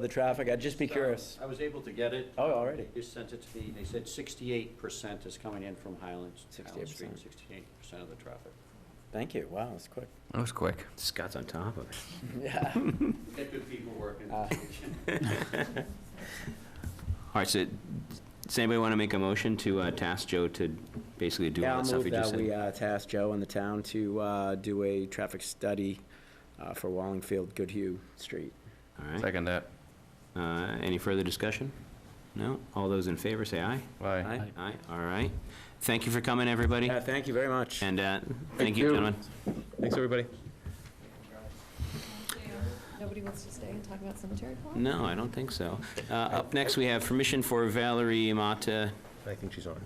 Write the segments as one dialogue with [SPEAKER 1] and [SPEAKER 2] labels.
[SPEAKER 1] for the traffic? I'd just be curious.
[SPEAKER 2] I was able to get it.
[SPEAKER 1] Oh, already.
[SPEAKER 2] They sent it to me, they said sixty-eight percent is coming in from Highlands, Highland Street,
[SPEAKER 1] 68%.
[SPEAKER 2] sixty-eight percent of the traffic.
[SPEAKER 1] Thank you. Wow, that's quick.
[SPEAKER 3] That was quick.
[SPEAKER 4] Scott's on top of it.
[SPEAKER 1] Yeah.
[SPEAKER 2] We Get good people working.
[SPEAKER 1] Ah.
[SPEAKER 4] All right, so does anybody want to make a motion to uh, task Joe to basically do
[SPEAKER 1] Yeah,
[SPEAKER 4] all
[SPEAKER 1] I'll
[SPEAKER 4] that stuff
[SPEAKER 1] move
[SPEAKER 4] he just
[SPEAKER 1] that we
[SPEAKER 4] said?
[SPEAKER 1] uh, task Joe and the town to uh, do a traffic study uh, for Wallingfield Goodhue Street.
[SPEAKER 4] All right.
[SPEAKER 3] Second that.
[SPEAKER 4] Uh, Any further discussion? No? All those in favor, say aye.
[SPEAKER 3] Aye.
[SPEAKER 4] Aye, all right. Thank you for coming, everybody.
[SPEAKER 1] Yeah, thank you very much.
[SPEAKER 4] And uh, thank you,
[SPEAKER 3] you.
[SPEAKER 4] gentlemen.
[SPEAKER 3] Thanks, everybody.
[SPEAKER 5] Nobody wants to stay and talk about cemetery plot?
[SPEAKER 6] Mm.
[SPEAKER 4] No, I don't think so. Uh, Up next, we have permission for Valerie Mata
[SPEAKER 6] I think she's on.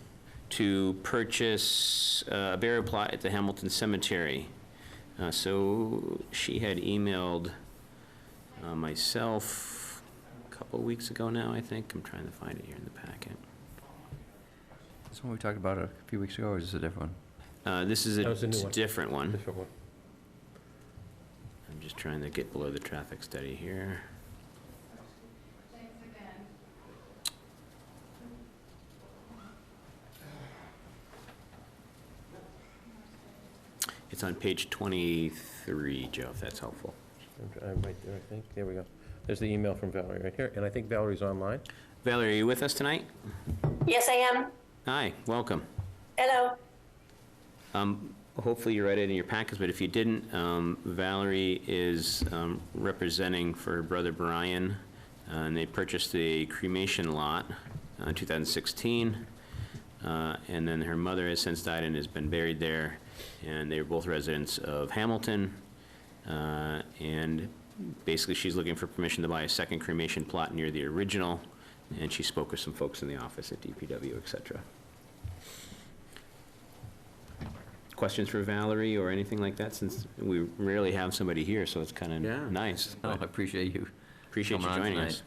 [SPEAKER 4] to purchase uh, a burial plot at the Hamilton Cemetery. Uh, So she had emailed uh, myself a couple of weeks ago now, I think. I'm trying to find it here in the packet.
[SPEAKER 3] This one we talked about a few weeks ago, or is this a different one?
[SPEAKER 4] Uh, This is
[SPEAKER 6] That was a new
[SPEAKER 4] a
[SPEAKER 6] one.
[SPEAKER 4] different one.
[SPEAKER 6] Different one.
[SPEAKER 4] I'm just trying to get below the traffic study here. It's on page 23, Joe, if that's helpful.
[SPEAKER 6] I'm- I'm right there, I think. There we go. There's the email from Valerie right here, and I think Valerie's online.
[SPEAKER 4] Valerie, are you with us tonight?
[SPEAKER 7] Yes, I am.
[SPEAKER 4] Hi, welcome.
[SPEAKER 7] Hello.
[SPEAKER 4] Um, Hopefully you read it in your packets, but if you didn't, um, Valerie is um, representing for her brother Brian, uh, and they purchased a cremation lot uh, in 2016. uh, And then her mother has since died and has been buried there, and they were both residents of Hamilton. uh, And basically, she's looking for permission to buy a second cremation plot near the original, and she spoke with some folks in the office at DPW, et cetera. questions for Valerie or anything like that, since we rarely have somebody here, so it's kind
[SPEAKER 1] Yeah.
[SPEAKER 4] of nice.
[SPEAKER 3] No, I appreciate you.
[SPEAKER 4] Oh, Appreciate you
[SPEAKER 3] coming on
[SPEAKER 4] joining
[SPEAKER 3] tonight.
[SPEAKER 4] us.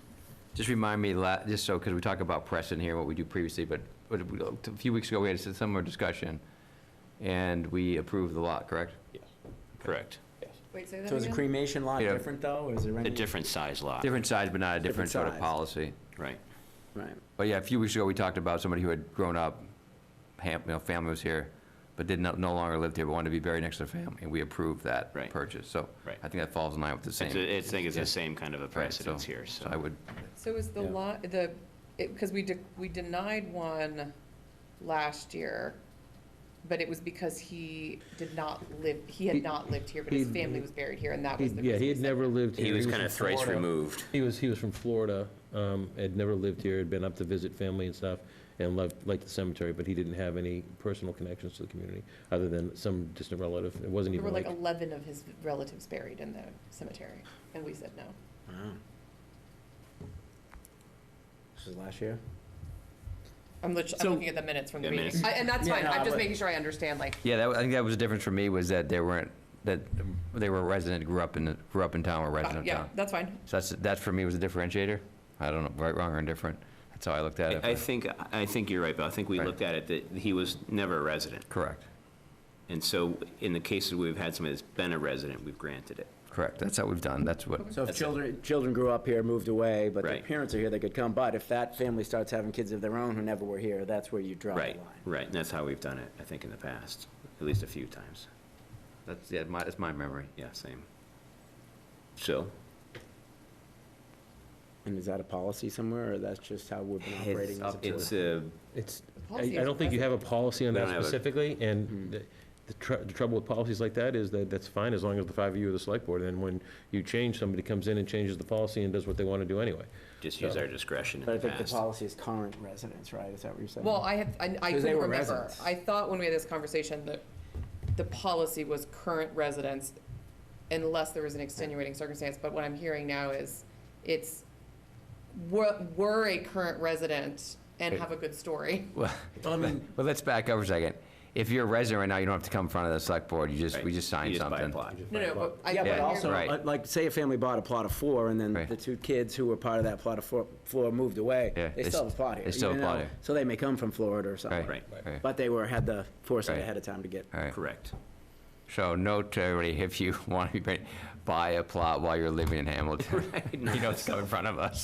[SPEAKER 3] Just remind me, la- just so, because we talk about Preston here, what we do previously, but but we- a few weeks ago, we had a similar discussion, and we approved the lot, correct?
[SPEAKER 4] Correct.
[SPEAKER 5] Wait, say that
[SPEAKER 1] So is a
[SPEAKER 5] again?
[SPEAKER 1] cremation lot
[SPEAKER 3] Yeah.
[SPEAKER 1] different, though, or is it
[SPEAKER 4] A
[SPEAKER 1] rented?
[SPEAKER 4] different size lot,
[SPEAKER 3] Different size, but not a
[SPEAKER 1] Different
[SPEAKER 3] different sort of
[SPEAKER 1] size.
[SPEAKER 3] policy.
[SPEAKER 4] right.
[SPEAKER 1] Right.
[SPEAKER 3] But yeah, a few weeks ago, we talked about somebody who had grown up, ham, you know, family was here, but did not, no longer lived here, but wanted to be buried next to their family, and we approved that
[SPEAKER 4] Right.
[SPEAKER 3] purchase, so.
[SPEAKER 4] Right.
[SPEAKER 3] I think that falls in line with the same.
[SPEAKER 4] It's a- it's- I think it's the same kind of a
[SPEAKER 3] Right,
[SPEAKER 4] precedence
[SPEAKER 3] so-
[SPEAKER 4] here,
[SPEAKER 3] I
[SPEAKER 4] so.
[SPEAKER 3] would,
[SPEAKER 5] So is the
[SPEAKER 1] Yeah.
[SPEAKER 5] lot, the, because we, de- we denied one last year, but it was because he did not live, he
[SPEAKER 6] He-
[SPEAKER 5] had not lived here, but his
[SPEAKER 6] he-
[SPEAKER 5] family was buried here, and that was the reason.
[SPEAKER 6] Yeah, he
[SPEAKER 5] we
[SPEAKER 6] had
[SPEAKER 5] said-
[SPEAKER 6] never lived here.
[SPEAKER 4] He was kind
[SPEAKER 6] from
[SPEAKER 4] of thrice
[SPEAKER 6] Florida.
[SPEAKER 4] removed.
[SPEAKER 6] He was, he was from Florida, um, had never lived here, had been up to visit family and stuff, and loved, liked the cemetery, but he didn't have any personal connections to the community, other than some distant relative. It wasn't
[SPEAKER 5] There were
[SPEAKER 6] even
[SPEAKER 5] like
[SPEAKER 6] like,
[SPEAKER 5] 11 of his relatives buried in the cemetery, and we said no.
[SPEAKER 1] This is last year?
[SPEAKER 5] I'm lit- I'm
[SPEAKER 1] So-
[SPEAKER 5] looking at the minutes from the
[SPEAKER 4] Yeah,
[SPEAKER 5] meeting.
[SPEAKER 4] minutes.
[SPEAKER 5] I- And that's
[SPEAKER 1] Yeah,
[SPEAKER 5] fine,
[SPEAKER 1] no,
[SPEAKER 5] I'm
[SPEAKER 1] but-
[SPEAKER 5] just making sure I understand, like,
[SPEAKER 3] yeah, that, I think that was the difference for me, was that they weren't, that they were a resident, grew up in, the- grew up in town, or resident of
[SPEAKER 5] uh, yeah,
[SPEAKER 3] town.
[SPEAKER 5] that's fine.
[SPEAKER 3] So that's, that for me was a differentiator. I don't know, right, wrong, or indifferent. That's how I looked at
[SPEAKER 4] I
[SPEAKER 3] it.
[SPEAKER 4] I
[SPEAKER 3] but-
[SPEAKER 4] think, I think you're right, but I think we
[SPEAKER 3] Right.
[SPEAKER 4] looked at it that he was never a resident.
[SPEAKER 3] Correct,
[SPEAKER 4] And so in the cases we've had somebody that's been a resident, we've granted it.
[SPEAKER 3] correct. That's how we've done, that's what,
[SPEAKER 1] So if children, children grew up here, moved away, but their
[SPEAKER 4] Right.
[SPEAKER 1] parents are here, they could come. But if that family starts having kids of their own who never were here, that's where you draw the
[SPEAKER 4] Right,
[SPEAKER 1] line.
[SPEAKER 4] right. And that's how we've done it, I think, in the past, at least a few times.
[SPEAKER 3] that's, yeah, my, that's my memory.
[SPEAKER 4] Yeah, same. So,
[SPEAKER 1] And is that a policy somewhere, or that's just how we've been
[SPEAKER 3] It's
[SPEAKER 1] operating as a
[SPEAKER 3] up to-
[SPEAKER 1] board?
[SPEAKER 4] it's a,
[SPEAKER 6] it's, I
[SPEAKER 5] policy
[SPEAKER 6] I don't think you have a policy on
[SPEAKER 4] We
[SPEAKER 6] that
[SPEAKER 4] don't have a- Hmm.
[SPEAKER 6] specifically, and the- the tr- the trouble with policies like that is that that's fine as long as the five of you are the select board, and when you change, somebody comes in and changes the policy and does what they want to do anyway.
[SPEAKER 4] just use our discretion in
[SPEAKER 1] But I
[SPEAKER 4] the
[SPEAKER 1] think the
[SPEAKER 4] past.
[SPEAKER 1] policy is current residents, right? Is that what you're saying?
[SPEAKER 5] Well, I have, I I
[SPEAKER 1] Because they
[SPEAKER 5] couldn't
[SPEAKER 1] were
[SPEAKER 5] remember.
[SPEAKER 1] residents.
[SPEAKER 5] I thought when we had this conversation that the policy was current residents unless there was an extenuating circumstance, but what I'm hearing now is it's, were, were a current resident and have a good story.
[SPEAKER 3] Well, well, let's back up for a second. If you're a resident right now, you don't have to come in front of the select board, you just,
[SPEAKER 4] Right.
[SPEAKER 3] we just sign
[SPEAKER 4] You buy a
[SPEAKER 3] something.
[SPEAKER 4] plot.
[SPEAKER 5] No, no, but I.
[SPEAKER 1] Yeah,
[SPEAKER 5] what
[SPEAKER 1] but
[SPEAKER 5] I'm
[SPEAKER 1] also,
[SPEAKER 3] Right.
[SPEAKER 5] hearing-
[SPEAKER 1] like- like, say a family bought a plot of four, and then
[SPEAKER 3] Right.
[SPEAKER 1] the two kids who were part of that plot of four, four moved away.
[SPEAKER 3] Yeah,
[SPEAKER 1] They
[SPEAKER 3] they
[SPEAKER 1] still have a
[SPEAKER 3] st-
[SPEAKER 1] plot
[SPEAKER 3] they
[SPEAKER 1] here.
[SPEAKER 3] still have
[SPEAKER 1] even
[SPEAKER 3] a plot
[SPEAKER 1] though-
[SPEAKER 3] here.
[SPEAKER 1] So they may come from Florida or something.
[SPEAKER 3] Right,
[SPEAKER 4] Right.
[SPEAKER 3] right,
[SPEAKER 1] But they were, had the foresight
[SPEAKER 3] Right.
[SPEAKER 1] ahead of time to get.
[SPEAKER 3] right.
[SPEAKER 4] Correct.
[SPEAKER 3] So note to everybody, if you want to buy a plot while you're living in Hamilton, you know it's coming in front of us.